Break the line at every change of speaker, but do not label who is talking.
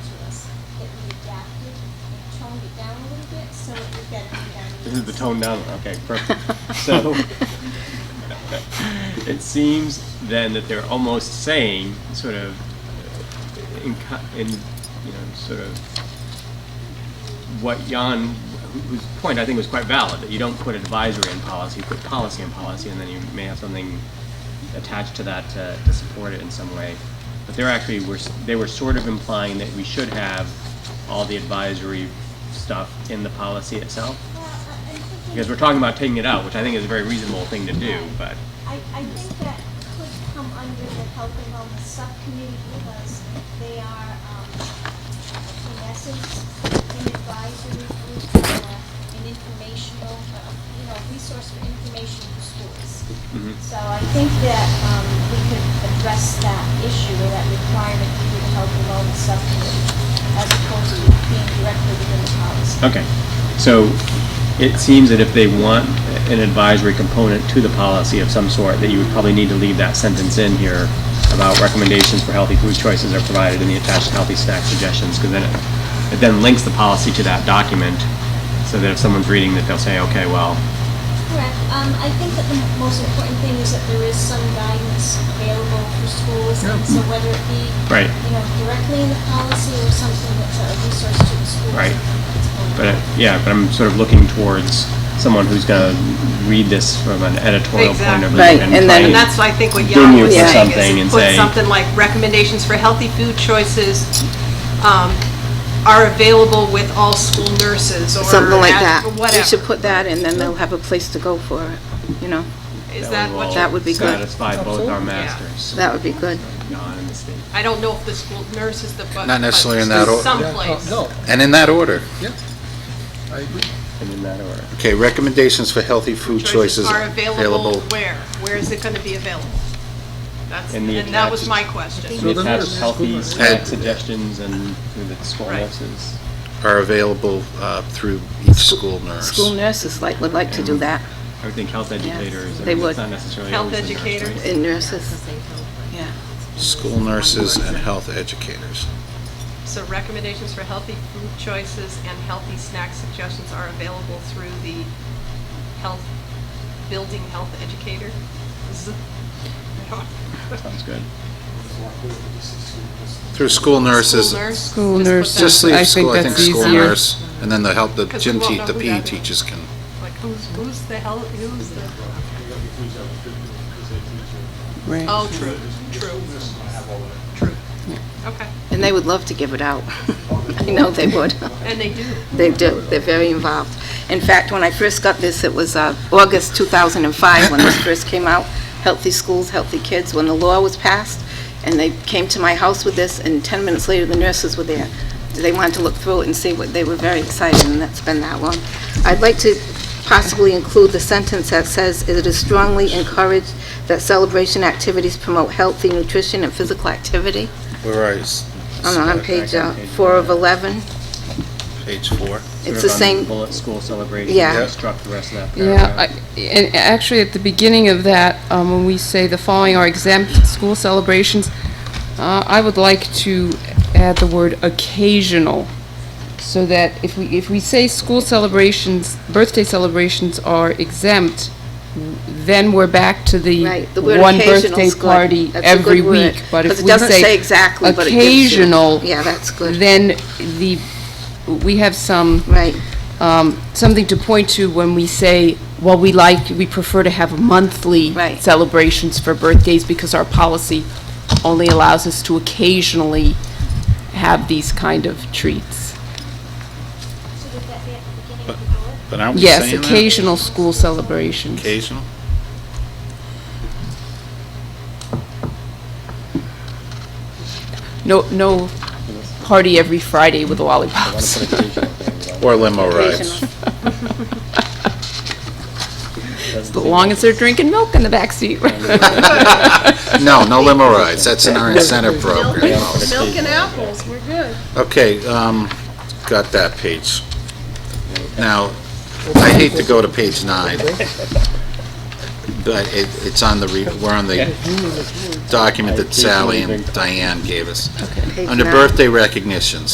toned it down a little bit, so it would better meet our needs.
This is the tone down. Okay, perfect. So it seems then that they're almost saying, sort of, uh, in, co- in you know, sort of what Jan, wh- whose point I think was quite valid, that you don't put advisory in policy, you put policy in policy, and then you may have something attached to that to, to support it in some way. But they're actually were s- they were sort of implying that we should have all the advisory stuff in the policy itself.
Well, I- I'm thinking-
Because we're talking about taking it out, which I think is a very reasonable thing to do, but
I, I think that could come under the health and wellness subcommittee because they are, um, in essence, an advisory group or an informational, uh, you know, resource for information for schools.
Mhm.
So I think that, um, we could address that issue or that requirement through the health and wellness subcommittee as opposed to being directly within the policy.
Okay, so it seems that if they want an advisory component to the policy of some sort, that you would probably need to leave that sentence in here about recommendations for healthy food choices are provided in the attached healthy snack suggestions, because then it, it then links the policy to that document, so that if someone's reading that, they'll say, okay, well,
Correct. Um, I think that the most important thing is that there is some guidance available for schools, and so whether it be,
Right.
you know, directly in the policy or something that's a resource to the schools.
Right.
it's important.
but, it- yeah, but I'm sort of looking towards someone who's gonna read this from an editorial point of view.
Exactly. Right,
and
and
try
then- Right.
and-
And
that's, I think, what Jan
Venue
was
for
saying,
something and
is put
say-
something like recommendations for healthy food choices um, are available with all school nurses or
Something like
at-
that.
or
We should
whatever.
put that in, then they'll have a place to go for it, you know?
Is that what,
That
you-
would be good.
Satisfy both our masters,
That would be good.
God and the state.
I don't know if the school nurse is the, but.
Not necessarily in that order.
Someplace.
No,
And in that order.
I agree.
and in that order.
Okay, recommendations for healthy food choices
Are available where? Where is it going to be available? That's,
In the
and that was
attached-
my question.
And
So
It
the
has
nurse-
healthy
school-
snack
Uh,
suggestions and through the school
Right.
nurses.
are available uh, through each school nurse.
School nurses like, would like to do that,
I would think health educators, I
they
mean, it's
would.
not necessarily
Health
always the nurse,
educators.
right?
and nurses, yeah.
School nurses and health educators.
So recommendations for healthy food choices and healthy snack suggestions are available through the health, building health educator. Z-
Sounds good.
Through school nurses.
School nurse?
School
Just put
Just
nurses.
that-
leave
I
school,
think
I think
that's
school
easier.
nurse, and then the help, the
'Cause we
gym
won't
te,
know
the
who
PE
that is.
teachers can,
Like, who's, who's the health, who's the,
Right.
oh, true, true, true. Okay,
And they would love to give it out. I know they would.
and they do.
They do, they're very involved. In fact, when I first got this, it was uh, August 2005 when this first came out, Healthy Schools, Healthy Kids, when the law was passed, and they came to my house with this, and 10 minutes later, the nurses were there. They wanted to look through it and see what, they were very excited, and that's been that long. I'd like to possibly include the sentence that says, "It is strongly encouraged that celebration activities promote healthy nutrition and physical activity."
where are you? S-
I'm on page uh, 4 of 11.
Page four.
Sort
It's
of
the
on
same,
Bullet school celebration,
Yeah.
construct the rest of that
Yeah,
paragraph.
I- and actually, at the beginning of that, um, when we say the following are exempt school celebrations, uh, I would like to add the word occasional, so that if we, if we say school celebrations, birthday celebrations are exempt, then we're back to the
Right, the word
one
occasional's
birthday
good.
party
That's a
every
good word,
week. But
'cause
if
it
we
doesn't say exactly, but it gives you-
Occasional.
Yeah, that's good.
Then the, we have some
right,
um, something to point to when we say, well, we like, we prefer to have monthly
Right.
celebrations for birthdays because our policy only allows us to occasionally have these kind of treats.
So would that be at the beginning of the bullet?
But aren't we
Yes,
saying that?
occasional school celebrations.
Occasional?
No, no party every Friday with
I want to
lollipops.
put a page up there without-
Or limo rides.
occasional.
As long as they're drinking milk in the backseat.
No, no limo rides, that's in our incentive program.
Milk and apples, we're good.
Okay, um, got that page. Now, I hate to go to page nine, but it, it's on the, re- we're on the document that Sally and Diane gave us.
Page
Under
nine.
birthday recognitions,